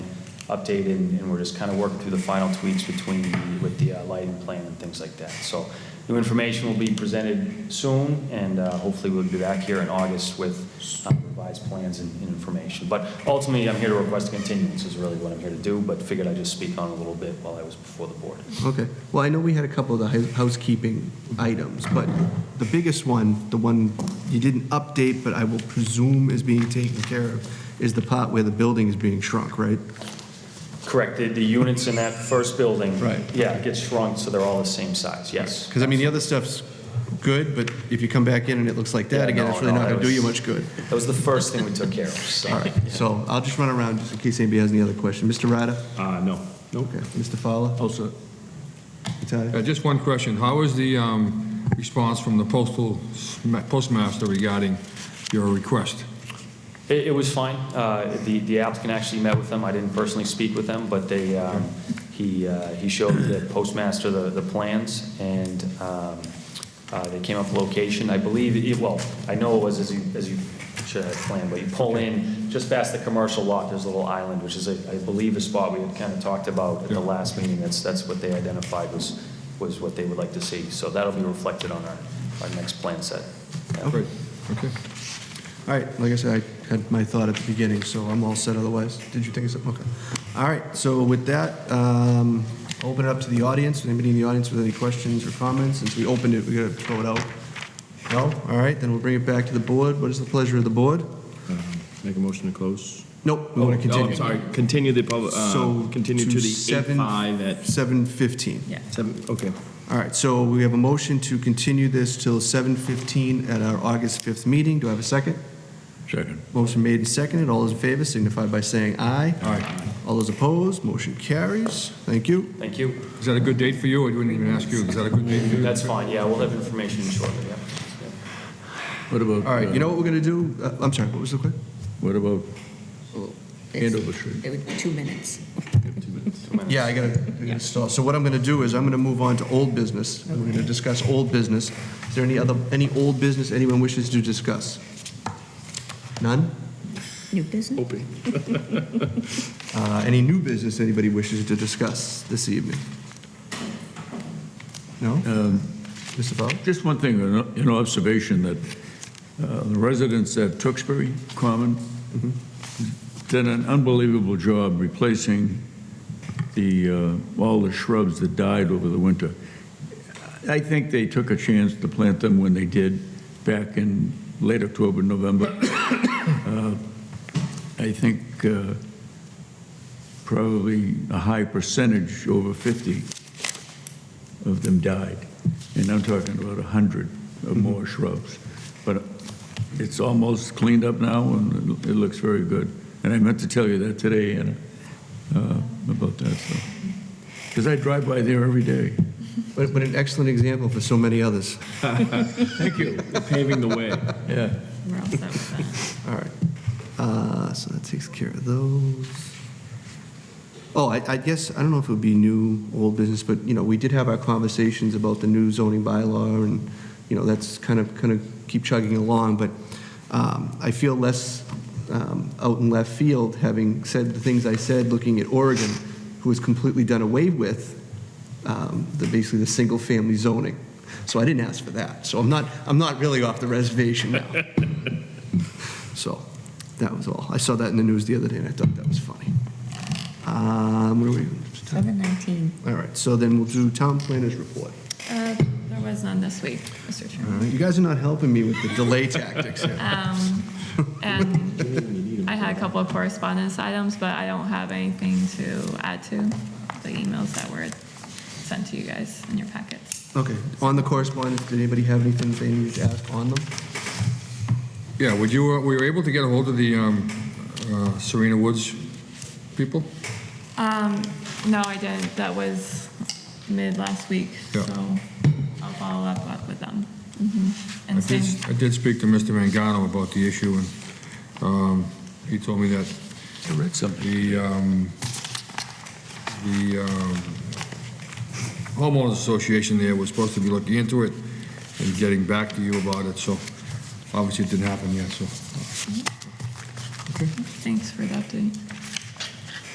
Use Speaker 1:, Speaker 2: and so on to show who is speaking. Speaker 1: update, and, and we're just kind of working through the final tweaks between, the- with the uh, lighting plan and things like that. So new information will be presented soon, and uh, hopefully we'll be back here in August with uh, revised plans and and information. But ultimately, I'm here to request a continuance is really what I'm here to do, but figured I'd just speak on it a little bit while I was before the board.
Speaker 2: Okay, well, I know we had a couple of the hous- housekeeping items, but the biggest one, the one you didn't update, but I will presume is being taken care of, is the part where the building is being shrunk, right?
Speaker 1: Correct, the, the units in that first building.
Speaker 2: Right.
Speaker 1: Yeah, it gets shrunk, so they're all the same size, yes.
Speaker 2: Because, I mean, the other stuff's good, but if you come back in and it looks like that
Speaker 1: Yeah,
Speaker 2: again,
Speaker 1: no,
Speaker 2: it's really
Speaker 1: no,
Speaker 2: not going
Speaker 1: that
Speaker 2: to do you
Speaker 1: was-
Speaker 2: much good.
Speaker 1: That was the first thing we took care of,
Speaker 2: All
Speaker 1: so.
Speaker 2: right, so I'll just run around just in case anybody has any other question. Mr. Ryder?
Speaker 3: Uh, no. Oh, Nope.
Speaker 2: Okay. Mr. Fowler? Also.
Speaker 4: Uh, Just one question. How was the um, response from the postal, sma- postmaster regarding your request?
Speaker 1: It, it was fine. Uh, The, the applicant actually met with them. I didn't personally speak with them, but they, um, he, uh, he showed the postmaster the, the plans, and um, uh, they came up with location. I believe, it- well, I know it was as you, as you should have planned, but you pull in just past the commercial lot, there's a little island, which is, I I believe, a spot we had kind of talked about at the last meeting. That's, that's what they identified was, was what they would like to see. So that'll be reflected on our, our next plan set. Yeah.
Speaker 4: Great. Okay.
Speaker 2: All right, like I said, I had my thought at the beginning, so I'm all set otherwise. Did you think of something? Okay. All right, so with that, um, open it up to the audience. Anybody in the audience with any questions or comments? Since we opened it, we gotta throw it out. No? All right, then we'll bring it back to the board. What is the pleasure of the board?
Speaker 3: Make a motion to close.
Speaker 2: Nope, we want to
Speaker 3: Oh,
Speaker 2: continue.
Speaker 3: I'm sorry, continue the public, uh,
Speaker 2: So,
Speaker 3: continue to the
Speaker 2: seven-
Speaker 3: 8/5 at
Speaker 2: 7:15.
Speaker 3: seven, okay.
Speaker 2: All right, so we have a motion to continue this till 7:15 at our August 5th meeting. Do I have a second?
Speaker 3: Second.
Speaker 2: Motion made and seconded. All those in favor signify by saying aye.
Speaker 3: Aye.
Speaker 2: All those opposed, motion carries. Thank you.
Speaker 1: Thank you.
Speaker 4: Is that a good date for you? I wouldn't even ask you. Is that a good date for you?
Speaker 1: That's fine, yeah, we'll have information shortly, yeah.
Speaker 5: What about,
Speaker 2: All right, you
Speaker 5: uh,
Speaker 2: know what we're going to do? Uh, I'm sorry, what was the question?
Speaker 5: what about
Speaker 6: It's-
Speaker 5: Andover Street?
Speaker 6: It would be two minutes.
Speaker 2: Yeah, I got to stall. So what I'm going to do is I'm going to move on to old business. and We're going to discuss old business. Is there any other, any old business anyone wishes to discuss? None?
Speaker 6: New business?
Speaker 5: Opie?
Speaker 2: Uh, Any new business anybody wishes to discuss this evening? No? Mr. Fowler?
Speaker 5: Just one thing, an an observation that uh, the residents at Tewksbury Common did an unbelievable job replacing the, uh, all the shrubs that died over the winter. I think they took a chance to plant them when they did back in late October, November. Uh, I think uh, probably a high percentage, over 50, of them died. And I'm talking about 100 or more shrubs. But it's almost cleaned up now, and it it looks very good. And I meant to tell you that today, Anna, uh, about that, so. Because I drive by there every day.
Speaker 2: But but an excellent example for so many others.
Speaker 5: Thank you.
Speaker 3: Paving the way.
Speaker 5: Yeah.
Speaker 6: We're all set with that.
Speaker 2: All right. Uh, So that takes care of those. Oh, I I guess, I don't know if it would be new, old business, but, you know, we did have our conversations about the new zoning bylaw, and, you know, that's kind of, kind of keep chugging along, but um, I feel less um, out in left field, having said the things I said, looking at Oregon, who has completely done away with um, the, basically the single-family zoning. So I didn't ask for that. So I'm not, I'm not really off the reservation now. So that was all. I saw that in the news the other day, and I thought that was funny. Um, what are we?
Speaker 6: Seven nineteen.
Speaker 2: All right, so then we'll do town planners report.
Speaker 6: Uh, there was none this week, Mr.
Speaker 2: All
Speaker 6: Chairman.
Speaker 2: right, you guys are not helping me with the delay tactics here.
Speaker 4: Mm.
Speaker 6: Um, and I had a couple of correspondence items, but I don't have anything to add to the emails that were sent to you guys in your packets.
Speaker 2: Okay, on the correspondence, did anybody have anything they needed to ask on them?
Speaker 4: Yeah, would you, uh, were you able to get a hold of the um, uh, Serena Woods people?
Speaker 6: Um, no, I didn't. That was mid last week, so
Speaker 4: Yeah.
Speaker 6: I'll follow up with them. Mhm.
Speaker 4: Mm-hmm. I
Speaker 6: And
Speaker 4: did,
Speaker 6: same,
Speaker 4: I did speak to Mr. Mangano about the issue, and um, he told me that
Speaker 5: I read something.
Speaker 4: the, um, the um, homeowners association there was supposed to be looking into it and getting back to you about it, so obviously it didn't happen yet, so.
Speaker 6: thanks for the update.